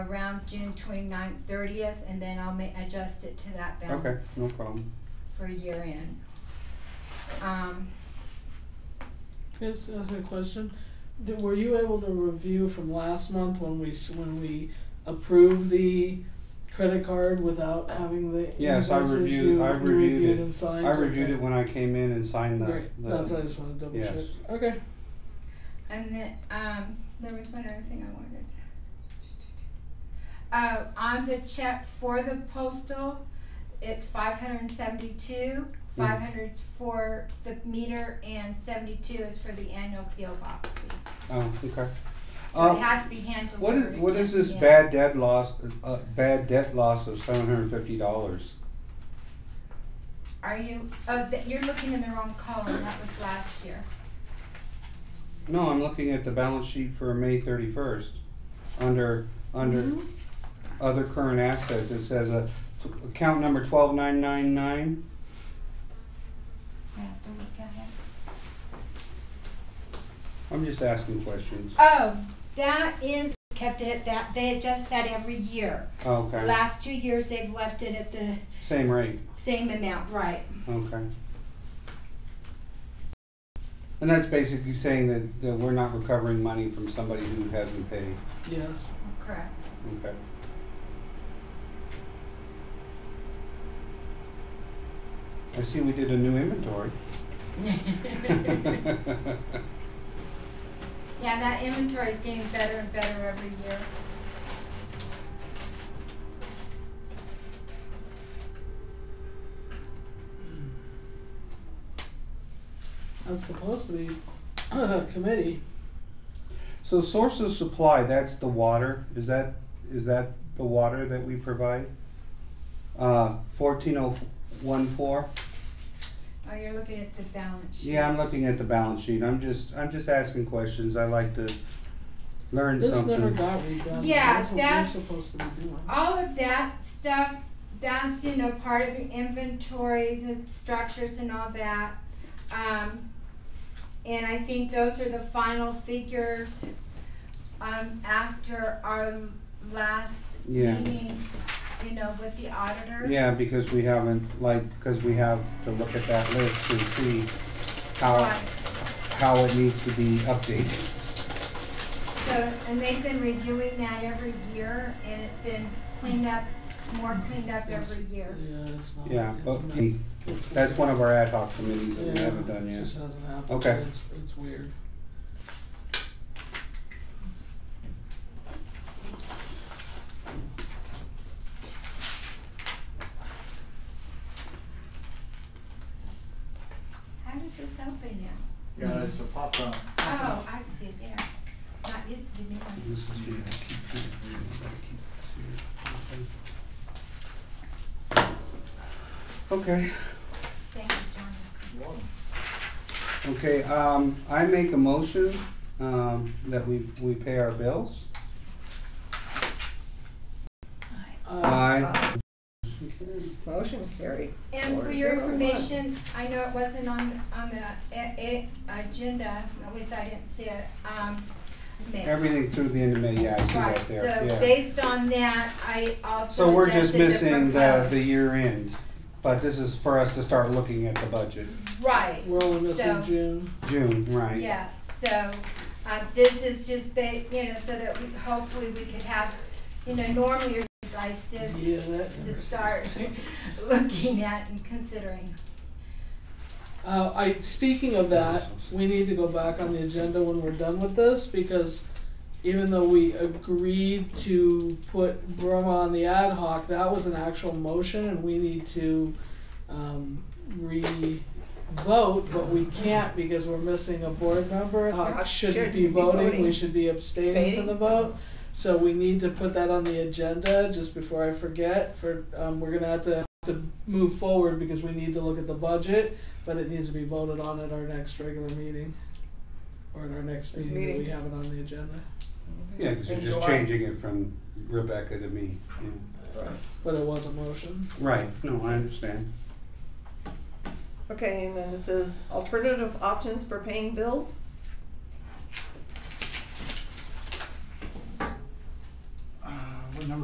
around June 29th, 30th, and then I'll ma- adjust it to that Okay, balance no problem. for year end. Um, Yes, that's a question. Did, were you able to review from last month when we s- when we approved the credit card without having the Yes, I invoices? reviewed- You- I you reviewed it. and signed. I reviewed Okay. it when I came in and signed the, Great. That's I the, just wanted to double Yes. check. Okay. and then, um, there was one other thing I wanted. Uh, on the check for the postal, it's five hundred and seventy-two, Mm. five hundred for the meter, and seventy-two is for the annual PO box fee. oh, okay. So Um, it has to be hand delivered. What is, it what can't is be this in- bad debt loss, uh, bad debt loss of seven hundred and fifty dollars? Are you, oh, th- you're looking in the wrong column, that was last year. No, I'm looking at the balance sheet for May thirty-first. Under, under Mhm. other current assets, it says, uh, t- account number twelve nine nine nine. I have to look at it. I'm just asking questions. Oh, that is kept it at that. They adjust that every year. The Oh, Okay, last two years they've left it at the same rate, same amount, right? okay. And that's basically saying that, that we're not recovering money from somebody who hasn't paid, Yes. Correct. okay. I see we did a new inventory. Yeah, that inventory is getting better and better every year. That's supposed to be a committee. So source of supply, that's the water, is that, is that the water that we provide? Uh, fourteen oh one four? Oh, you're looking at the balance sheet. Yeah, I'm looking at the balance sheet, I'm just, I'm just asking questions, I like to learn This never something. got redone. Yeah, that's what that's- we're supposed to be doing. All of that stuff, that's, you know, part of the inventory, the structures and all that. Um, and I think those are the final figures, um, after our last Yeah. meeting, you know, with the auditors. Yeah, because we haven't, like, because we have to look at that list and see how, Right. how it needs to be updated. So, and they've been reviewing that every year, and it's been cleaned up, more cleaned up every year. Yeah, it's not. Yeah, it's but not- we- it's- that's one of our ad hoc committees that we Yeah, haven't done it yet. just hasn't happened. Okay. It's, it's weird. How does this open now? Yeah, it's a pop-up. Uh-huh. Oh, I see it there. Not used to be me. This is the- I keep trying to read it, but I keep seeing it. Okay. Thank you, John. Okay, um, I make a motion, um, that we, we pay our bills. Uh, Aye. Motion carried. And for Four your zero one. information, I know it wasn't on, on the a- a- agenda, at least I didn't see it, um, May. Everything through the end of May, yeah, I see Right, that there, so yeah. based on that, I also So we're just adjusted the missing the, the proposed. year end, but this is for us to start looking at the budget. Right, we're only missing so- June. June, right? Yeah, so, uh, this is just ba- you know, so that we, hopefully we could have, you know, normally you guys this Yeah, that. to start looking at and considering. Uh, I, speaking of that, we need to go back on the agenda when we're done with this, because even though we agreed to put Burma on the ad hoc, that was an actual motion, and we need to, um, re-vote, but we can't because we're missing a board member. Uh, shouldn't be Shouldn't be voting, we voting. should be abstaining from the Abstaining. vote. So we need to put that on the agenda, just before I forget, for, um, we're gonna have to, to move forward because we need to look at the budget but it needs to be voted on at our next regular meeting. Or at our next This meeting that we meeting. have it on the agenda. Yeah, cause you're In just July. changing it from Rebecca to me, yeah. But it was a motion. Right, no, I understand. Okay, and then it says alternative options for paying bills.